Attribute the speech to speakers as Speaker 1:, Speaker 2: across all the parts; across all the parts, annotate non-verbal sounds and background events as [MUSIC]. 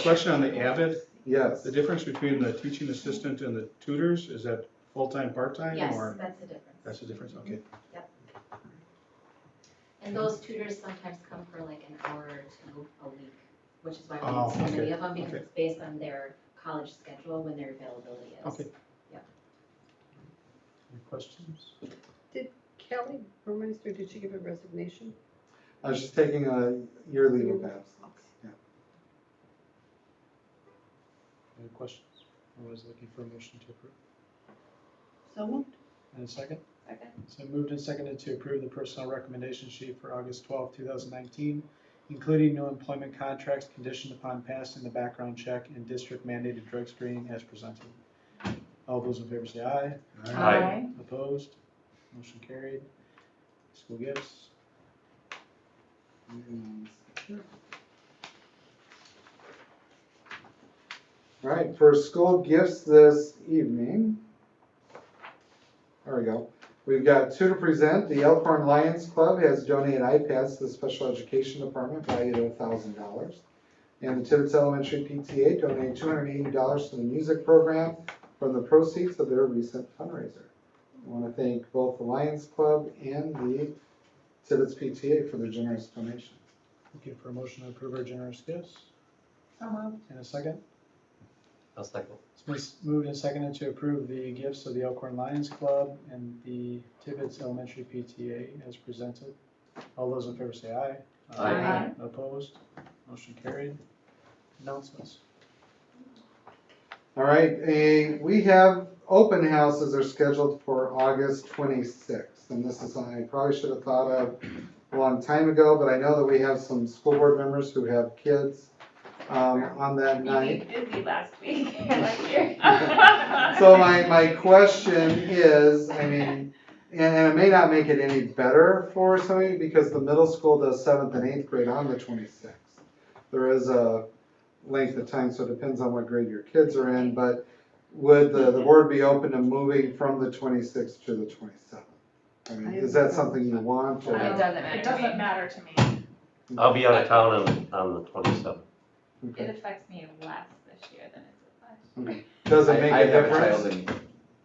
Speaker 1: question on the Avid,
Speaker 2: Yes,
Speaker 1: the difference between the teaching assistant and the tutors, is that full-time, part-time,
Speaker 3: Yes,
Speaker 1: or?
Speaker 3: that's the difference.
Speaker 1: That's the difference, okay.
Speaker 3: And those tutors sometimes come for like an hour or two a week, which is why
Speaker 1: Oh,
Speaker 3: we need so
Speaker 1: okay,
Speaker 3: many of them, because
Speaker 1: okay.
Speaker 3: it's based on their college schedule when their availability is.
Speaker 1: Okay.
Speaker 3: Yeah.
Speaker 1: Any questions?
Speaker 4: Kelly Burmeister, did she give a resignation?
Speaker 2: I was just taking a year leave of absence.
Speaker 5: Any questions? I was looking for a motion to approve.
Speaker 4: So moved.
Speaker 5: And a second?
Speaker 4: Second.
Speaker 5: So moved and seconded to approve the personnel recommendation sheet for August twelfth, two thousand nineteen, including no employment contracts conditioned upon passing the background check and district mandated drug screening as presented. All those in favor say aye.
Speaker 1: All right.
Speaker 3: Um, [LAUGHS]
Speaker 6: Aye.
Speaker 5: Opposed? Motion carried. School gifts.
Speaker 2: Moving on. All right, for school gifts this evening. There we go. We've got two to present. The Elkhorn Lions Club has donated iPads to the Special Education Department valued at thousand dollars. And the Tibbetts Elementary PTA donated two hundred and eighty dollars to the music program from the proceeds of their recent fundraiser. I want to thank both the Lions Club and the Tibbetts PTA for their generous donation.
Speaker 5: Looking for a motion to approve our generous gifts.
Speaker 4: So moved.
Speaker 5: And a second?
Speaker 6: I'll second.
Speaker 5: It's been s- moved and seconded to approve the gifts of the Elkhorn Lions Club and the Tibbetts Elementary PTA as presented. All those in favor say aye.
Speaker 6: Aye.
Speaker 5: Opposed? Motion carried.
Speaker 4: [LAUGHS]
Speaker 5: Announcements.
Speaker 2: All right, eh, we have, open houses are scheduled for August 26th. And this is something I probably should have thought of a long time ago, but I know that we have some school board members who have kids um, on that night.
Speaker 7: You made me busy last week, like here.
Speaker 2: So my, my question is, I mean, and, and it may not make it any better for some of you because the middle school does seventh and eighth grade on the twenty-sixth. There is a length of time, so it depends on what grade your kids are in, but would the, the board be open to moving from the twenty-sixth to the twenty-seventh? I mean, is that something you want or?
Speaker 7: It doesn't matter.
Speaker 6: It
Speaker 7: to me.
Speaker 6: doesn't matter to me.
Speaker 8: I'll be out of town on, on the twenty-seventh.
Speaker 7: It
Speaker 2: Okay.
Speaker 7: affects me less this year than it did last. year.
Speaker 2: Does it
Speaker 9: I-
Speaker 2: make a
Speaker 9: I have a
Speaker 2: difference?
Speaker 9: child in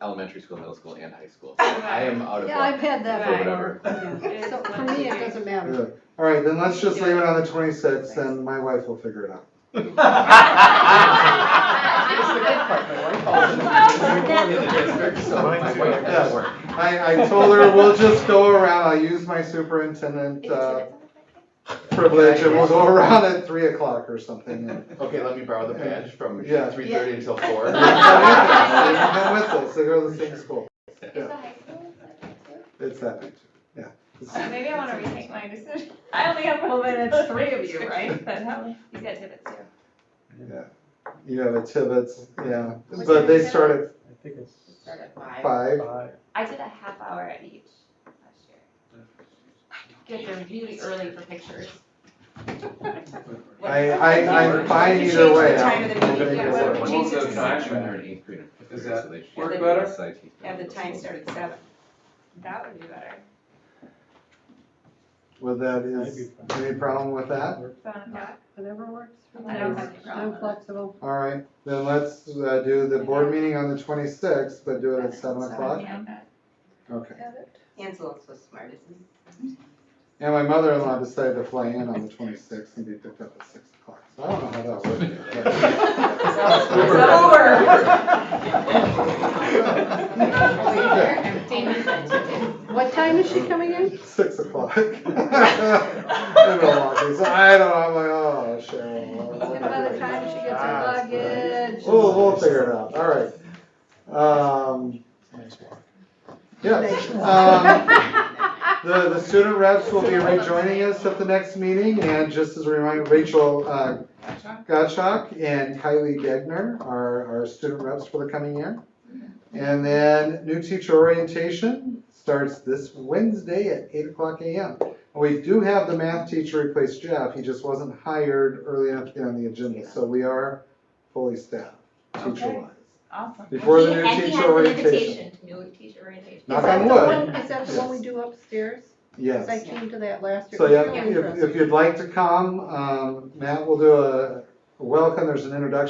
Speaker 9: elementary school, middle school, and high school,
Speaker 7: [LAUGHS]
Speaker 9: so I am out of
Speaker 4: Yeah, I've
Speaker 9: luck.
Speaker 4: had that before.
Speaker 9: Right.
Speaker 7: It
Speaker 4: Yeah.
Speaker 7: is
Speaker 4: So for
Speaker 7: what
Speaker 4: me,
Speaker 7: it
Speaker 4: it
Speaker 7: is.
Speaker 4: doesn't matter.
Speaker 2: Good. All right, then let's just leave it on the twenty-sixth and my wife will figure it out.
Speaker 1: That's
Speaker 7: the good part,
Speaker 9: my wife always in the district, so my wife does work.
Speaker 2: I, I told her, we'll just go around, I'll use my superintendent [LAUGHS]
Speaker 7: Is
Speaker 2: uh,
Speaker 7: it-
Speaker 2: privilege, and we'll go around at three o'clock or something. And-
Speaker 9: Okay, let me borrow the badge from
Speaker 2: Yeah.
Speaker 9: three thirty until
Speaker 5: [LAUGHS]
Speaker 9: four.
Speaker 2: They've been with us, they go to the same school,
Speaker 7: Is the high school like that too?
Speaker 2: it's that night, yeah.
Speaker 7: Uh,
Speaker 2: It's-
Speaker 7: Maybe I wanna rethink my decision. [LAUGHS] I only have. Well, then it's three of you, right? But how, [LAUGHS] you got Tibbetts too.
Speaker 2: You have a Tibbetts, yeah,
Speaker 7: Was
Speaker 2: but
Speaker 7: it
Speaker 2: they
Speaker 7: Tibbetts?
Speaker 2: start
Speaker 5: I think it's
Speaker 7: Start at
Speaker 2: at
Speaker 7: five.
Speaker 2: five,
Speaker 5: five.
Speaker 9: [LAUGHS]
Speaker 7: I did a half hour at each last year. Get there really early for pictures.
Speaker 2: [LAUGHS] I, I, I'm fine
Speaker 6: You
Speaker 2: either way.
Speaker 6: changed the time of the
Speaker 2: I'll
Speaker 6: meeting,
Speaker 2: make
Speaker 6: yeah,
Speaker 2: it
Speaker 6: why
Speaker 2: work.
Speaker 6: don't we
Speaker 9: Most
Speaker 6: change it
Speaker 9: of
Speaker 6: to
Speaker 9: the time,
Speaker 6: seven?
Speaker 9: when they're in eighth grade and fifth
Speaker 5: Does
Speaker 9: grade,
Speaker 5: that
Speaker 9: so they should-
Speaker 7: work
Speaker 9: they're
Speaker 6: better?
Speaker 9: side teachers.
Speaker 6: Have the time start at seven.
Speaker 7: That would be better.
Speaker 2: With that is, any problem with that?
Speaker 7: Seven o'clock?
Speaker 4: Whatever works for me.
Speaker 7: I don't have any problem.
Speaker 4: I'm flexible.
Speaker 2: All right, then let's uh, do the board meeting on the twenty-sixth, but do it at seven o'clock,
Speaker 7: Yeah, that-
Speaker 2: okay.
Speaker 6: Ansel's was smart,
Speaker 3: [LAUGHS]
Speaker 6: isn't he?
Speaker 2: And my mother-in-law decided to fly in on the twenty-sixth and be picked up at six o'clock, so I don't know how that worked.
Speaker 4: What time is she coming in?
Speaker 2: but- Six o'clock. [LAUGHS] In Milwaukee, so I don't know, I'm like, oh,
Speaker 4: And by the
Speaker 2: Cheryl.
Speaker 4: time she gets her luggage.
Speaker 2: We'll, we'll figure it out, all right. Um,
Speaker 5: Nice walk.
Speaker 2: yes, um,
Speaker 4: [LAUGHS]
Speaker 2: The, the student reps will be rejoining us at the next meeting, and just as a reminder, Rachel uh, Gottschalk and Kylie Degner are our student reps for the coming year. And then new teacher orientation starts this Wednesday at eight o'clock AM. We do have the math teacher replace Jeff, he just wasn't hired early enough to get on the agenda, so we are fully staffed,
Speaker 7: Okay.
Speaker 2: teacher-wise.
Speaker 7: Awesome.
Speaker 2: Before the
Speaker 3: And
Speaker 2: new
Speaker 3: he-
Speaker 2: teacher
Speaker 3: And he has
Speaker 2: orientation.
Speaker 3: an invitation, new teacher orientation.
Speaker 2: Knock
Speaker 4: Is that
Speaker 2: on
Speaker 4: the
Speaker 2: wood.
Speaker 4: one- Is that the one we do upstairs? 'Cause
Speaker 2: Yes.
Speaker 4: I came to that last year.
Speaker 2: So
Speaker 4: It was
Speaker 2: yeah,
Speaker 4: really
Speaker 2: if,
Speaker 4: interesting.
Speaker 2: if you'd like to come, um, Matt will do a welcome, there's an introduction